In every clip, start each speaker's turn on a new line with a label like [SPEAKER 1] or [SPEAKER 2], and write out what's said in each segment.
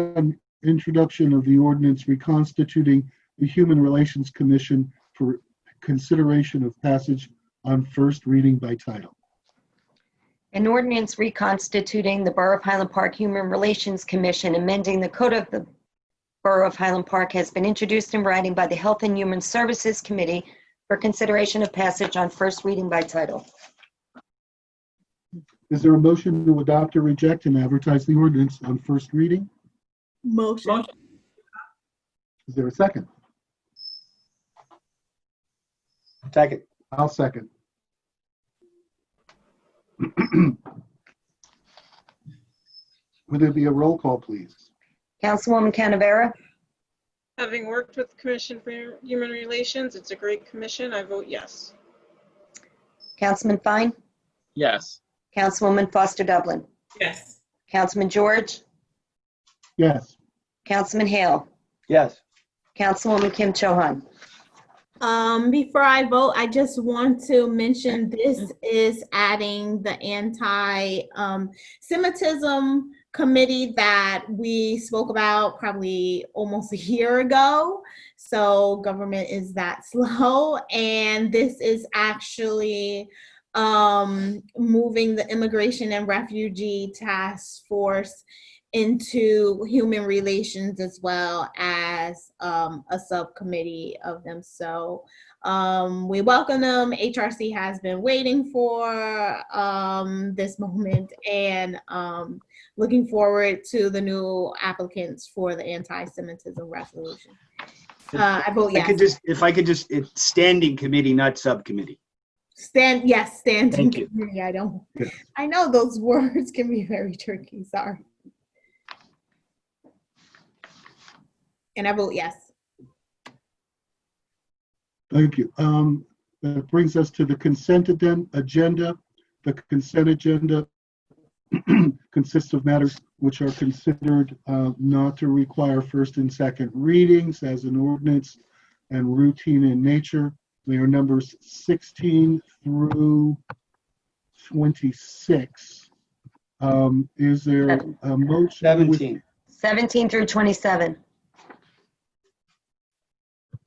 [SPEAKER 1] on introduction of the ordinance reconstituting the Human Relations Commission for consideration of passage on first reading by title.
[SPEAKER 2] An ordinance reconstituting the Borough of Highland Park Human Relations Commission, amending the code of the Borough of Highland Park has been introduced in writing by the Health and Human Services Committee for consideration of passage on first reading by title.
[SPEAKER 1] Is there a motion to adopt or reject and advertise the ordinance on first reading?
[SPEAKER 3] Motion.
[SPEAKER 4] Motion.
[SPEAKER 1] Is there a second?
[SPEAKER 5] Second.
[SPEAKER 1] I'll second. Would there be a roll call, please?
[SPEAKER 2] Councilwoman Canavera?
[SPEAKER 4] Having worked with the Commission for Human Relations, it's a great commission. I vote yes.
[SPEAKER 2] Councilman Fine?
[SPEAKER 6] Yes.
[SPEAKER 2] Councilwoman Foster Dublin?
[SPEAKER 3] Yes.
[SPEAKER 2] Councilman George?
[SPEAKER 1] Yes,
[SPEAKER 2] Councilman Hale?
[SPEAKER 5] Yes.
[SPEAKER 2] Councilwoman Kim Cho Han?
[SPEAKER 3] Um, before I vote, I just want to mention this is adding the anti um, Semitism committee that we spoke about probably almost a year ago. So government is that slow. And this is actually um, moving the Immigration and Refugee Task Force into human relations as well as um, a subcommittee of them. So um, we welcome them. HRC has been waiting for um, this moment and um, looking forward to the new applicants for the anti-Semitism resolution. Uh, I vote
[SPEAKER 5] I could
[SPEAKER 3] yes.
[SPEAKER 5] just, if I could just, it's standing committee, not subcommittee.
[SPEAKER 3] Stand yes. Standing
[SPEAKER 5] Thank you.
[SPEAKER 3] committee. I don't.
[SPEAKER 1] Yes.
[SPEAKER 3] I know those words can be very tricky. Sorry. And I vote yes.
[SPEAKER 1] thank you. Um, That brings us to the consent aden- agenda. The consent agenda consists of matters which are considered uh, not to require first and second readings as an ordinance and routine in nature. They are numbers 16 through 26. Um, Is there a motion? with-
[SPEAKER 5] 17.
[SPEAKER 2] 17 through 27.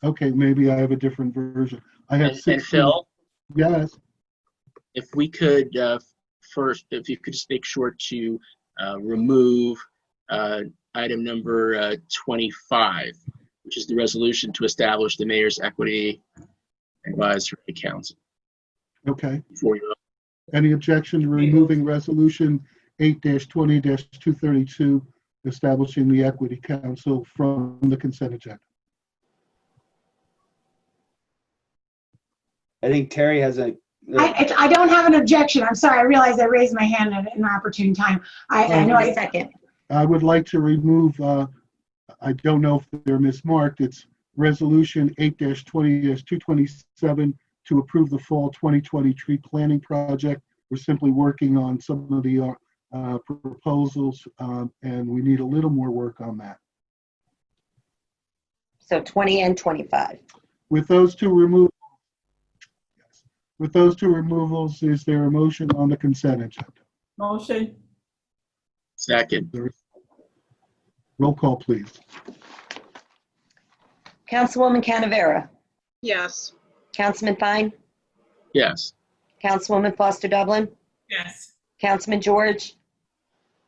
[SPEAKER 1] Okay, maybe I have a different version. I have
[SPEAKER 6] And and
[SPEAKER 1] 16.
[SPEAKER 6] Phil,
[SPEAKER 1] Yes.
[SPEAKER 6] if we could uh, first, if you could just make sure to uh, remove uh, item number uh, 25, which is the resolution to establish the mayor's equity advisory council.
[SPEAKER 1] Okay.
[SPEAKER 6] Before you,
[SPEAKER 1] Any objection to removing resolution eight twenty two thirty-two, establishing the equity council from the consent agenda?
[SPEAKER 5] I think Terry has a,
[SPEAKER 7] I, I I don't have an objection. I'm sorry. I realized I raised my hand at an opportune time. I, I know I,
[SPEAKER 2] Second.
[SPEAKER 1] I would like to remove, uh, I don't know if they're mismarked, it's resolution eight twenty two twenty-seven to approve the fall twenty twenty tree planting project. We're simply working on some of the, uh, proposals, um, and we need a little more work on that.
[SPEAKER 2] So 20 and 25.
[SPEAKER 1] With those two removals, with those two removals, is there a motion on the consent agenda?
[SPEAKER 4] Motion.
[SPEAKER 6] second,
[SPEAKER 1] Roll call, please.
[SPEAKER 2] Councilwoman Canavera?
[SPEAKER 4] Yes.
[SPEAKER 2] Councilman Fine?
[SPEAKER 6] yes.
[SPEAKER 2] Councilwoman Foster Dublin?
[SPEAKER 3] Yes.
[SPEAKER 2] Councilman George?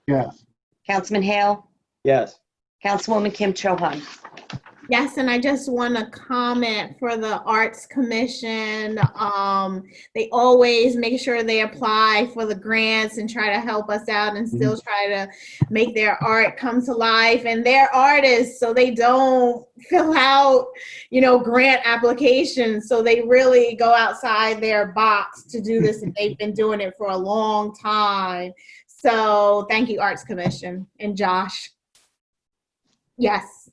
[SPEAKER 1] Yes,
[SPEAKER 2] Councilman Hale?
[SPEAKER 5] yes.
[SPEAKER 2] Councilwoman Kim Cho Han?
[SPEAKER 3] Yes, and I just want to comment for the Arts Commission. Um, they always make sure they apply for the grants and try to help us out and still try to make their art come to life. And they're artists, so they don't fill out, you know, grant applications. So they really go outside their box to do this, and they've been doing it for a long time. So thank you, Arts Commission and Josh. Yes.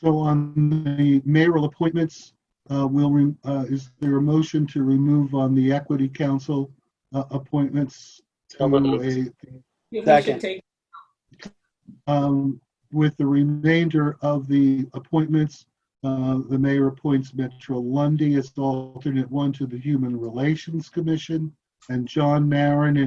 [SPEAKER 1] so on the mayoral appointments, uh, will, re- uh, is there a motion to remove on the equity council uh, appointments?
[SPEAKER 6] So moved.
[SPEAKER 1] to
[SPEAKER 5] Second.
[SPEAKER 1] a, um, With the remainder of the appointments, uh, the mayor appoints Metro Lundy as the alternate one to the Human Relations Commission, and John Marin and